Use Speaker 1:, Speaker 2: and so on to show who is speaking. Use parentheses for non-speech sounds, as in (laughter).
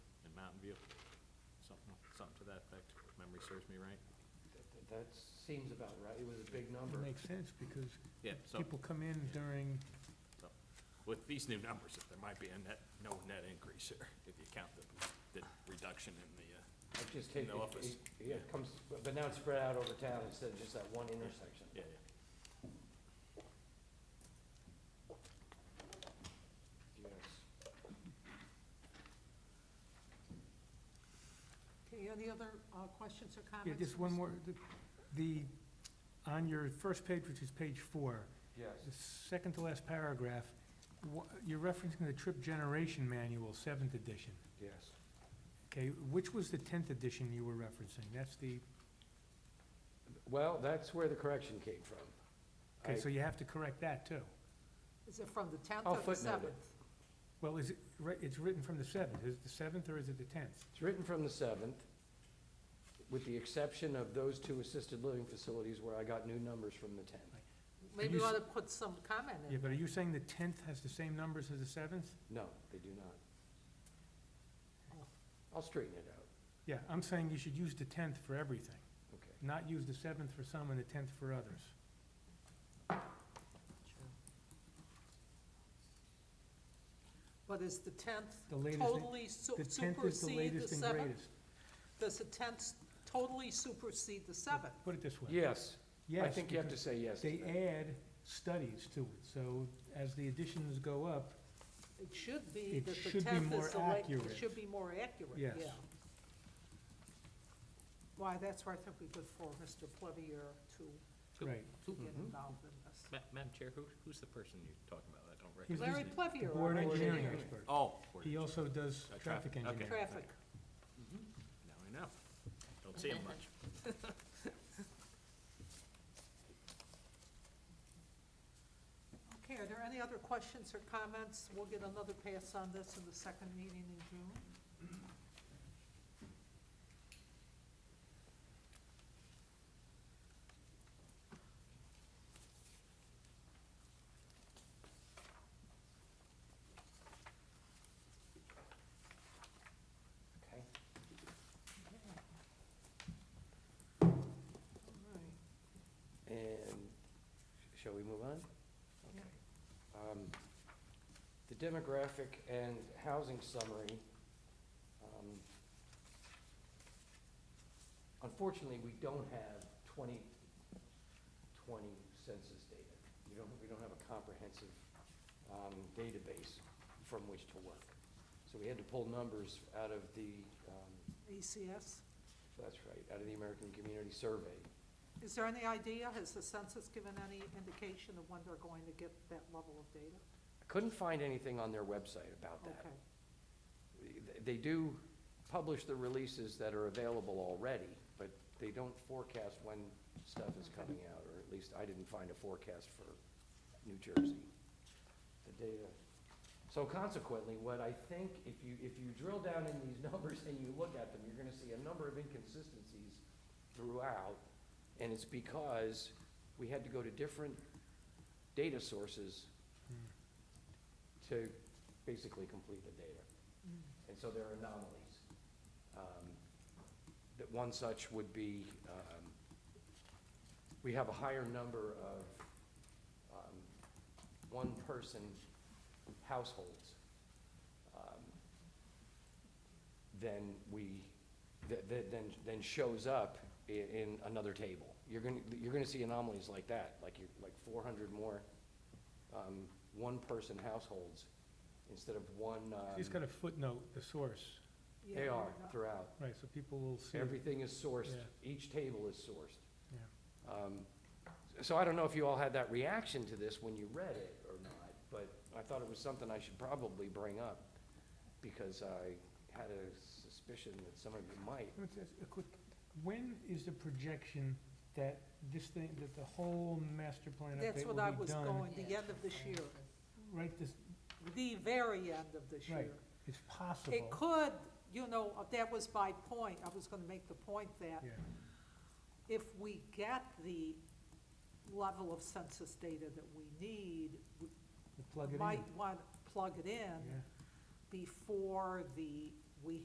Speaker 1: something to that effect, if memory serves me right.
Speaker 2: That- That seems about right, it was a big number.
Speaker 3: It makes sense, because
Speaker 1: Yeah, so
Speaker 3: people come in during,
Speaker 1: with these new numbers, there might be a net, no net increase here, if you count the, the reduction in the, uh,
Speaker 2: I just take,
Speaker 1: In the
Speaker 2: it-
Speaker 1: office.
Speaker 2: it- yeah, it comes, but but now it's spread out over town instead of just that one intersection.
Speaker 1: yeah, yeah.
Speaker 2: Yes.
Speaker 4: Okay, any other uh, questions or
Speaker 3: yeah,
Speaker 4: comments?
Speaker 3: just one more, the- the, on your first page, which is page four,
Speaker 2: Yes.
Speaker 3: the second to last paragraph, wha- you're referencing the trip generation manual, seventh edition.
Speaker 2: Yes.
Speaker 3: Okay, which was the tenth edition you were referencing? That's the,
Speaker 2: Well, that's where the correction came from.
Speaker 3: okay,
Speaker 2: I-
Speaker 3: so you have to correct that too.
Speaker 4: Is it from the 10th
Speaker 3: Oh,
Speaker 2: I'll
Speaker 4: or the 7th?
Speaker 2: footnote it.
Speaker 3: Well, is it, ri- it's written from the seventh, is it the seventh or is it the tenth?
Speaker 2: It's written from the seventh, with the exception of those two assisted living facilities where I got new numbers from the tenth.
Speaker 4: Maybe
Speaker 3: you
Speaker 4: we
Speaker 3: s-
Speaker 4: ought to put some comment
Speaker 3: Yeah,
Speaker 4: in.
Speaker 3: but are you saying the tenth has the same numbers as the seventh?
Speaker 2: No, they do not.
Speaker 4: Oh.
Speaker 2: I'll straighten it out,
Speaker 3: Yeah, I'm saying you should use the tenth for everything,
Speaker 2: okay.
Speaker 3: not use the seventh for some and the tenth for others.
Speaker 4: But is the 10th
Speaker 3: The latest, thing-
Speaker 4: totally su-
Speaker 3: the tenth is the
Speaker 4: supersede the
Speaker 3: latest and
Speaker 4: 7th?
Speaker 3: greatest.
Speaker 4: Does the 10th totally supersede the 7th?
Speaker 3: Put it this way.
Speaker 2: Yes, I
Speaker 3: Yes,
Speaker 2: think you have to
Speaker 3: because
Speaker 2: say yes to
Speaker 3: They
Speaker 2: that.
Speaker 3: add studies to it, so as the additions go up,
Speaker 4: It should be
Speaker 3: It
Speaker 4: that the 10th
Speaker 3: should be
Speaker 4: is the
Speaker 3: more
Speaker 4: la-
Speaker 3: accurate.
Speaker 4: It should be more accurate, yeah.
Speaker 3: Yes.
Speaker 4: Why, that's where I think we could for Mr. Plevier to
Speaker 1: Who-
Speaker 3: right,
Speaker 1: Who,
Speaker 4: get
Speaker 2: Mhm.
Speaker 4: involved in this.
Speaker 1: Ma- Madam Chair, who, who's the person you're talking about? I don't
Speaker 3: He's
Speaker 1: recognize.
Speaker 4: Larry
Speaker 1: his name.
Speaker 3: the
Speaker 4: Plevier, our
Speaker 3: board engineering
Speaker 4: engineer.
Speaker 3: expert.
Speaker 1: Oh. Board
Speaker 3: He
Speaker 1: of-
Speaker 3: also does
Speaker 1: Uh, traffic,
Speaker 3: traffic
Speaker 1: okay.
Speaker 3: engineering.
Speaker 4: Traffic.
Speaker 2: Mm-hmm.
Speaker 1: Now I know. Don't see him much.
Speaker 4: Okay, are there any other questions or comments? We'll get another pass on this in the second meeting in June.
Speaker 2: Okay.
Speaker 4: All right.
Speaker 2: And shall we move on?
Speaker 4: Yeah.
Speaker 2: Okay. Um, The demographic and housing summary. um, Unfortunately, we don't have 2020 census data. We don't, we don't have a comprehensive um, database from which to work. So we had to pull numbers out of the, um,
Speaker 4: ECS,
Speaker 2: that's right, out of the American Community Survey.
Speaker 4: is there any idea, has the census given any indication of when they're going to get that level of data?
Speaker 2: I Couldn't find anything on their website about that.
Speaker 4: Okay,
Speaker 2: th- they do publish the releases that are available already, but they don't forecast when stuff is coming out, or at least I didn't find a forecast for New Jersey. The data. So consequently, what I think, if you, if you drill down in these (laughs) numbers and you look at them, you're gonna see a number of inconsistencies throughout, and it's because we had to go to different data sources to basically complete the data. And so there are anomalies. Um, That one such would be, um, we have a higher number of um, one-person households um, than we, that, that- than, than shows up i- in another table. You're gonna, you're gonna see anomalies like that, like you, like four hundred more um, one-person households instead of one.
Speaker 3: He's
Speaker 2: um,
Speaker 3: got a footnote, the source,
Speaker 4: Yeah,
Speaker 2: they are
Speaker 4: yeah.
Speaker 2: throughout.
Speaker 3: right, so people will see. it.
Speaker 2: Everything is sourced,
Speaker 3: Yeah.
Speaker 2: each table is sourced.
Speaker 3: Yeah.
Speaker 2: Um, So I don't know if you all had that reaction to this when you read it or not, but I thought it was something I should probably bring up because I had a suspicion that some of you might.
Speaker 3: Let me just ask a quick, when is the projection that this thing, that the whole master plan
Speaker 4: That's
Speaker 3: update
Speaker 4: what I
Speaker 3: will be
Speaker 4: was
Speaker 3: done?
Speaker 4: going, the end of this year,
Speaker 3: Right, this,
Speaker 4: the very end of this
Speaker 3: Right.
Speaker 4: year.
Speaker 3: it's possible.
Speaker 4: It could, you know, that was my point, I was gonna make the point that
Speaker 3: Yeah,
Speaker 4: if we get the level of census data that we need, we
Speaker 3: we'll plug it in,
Speaker 4: might want to plug it in
Speaker 3: yeah.
Speaker 4: before the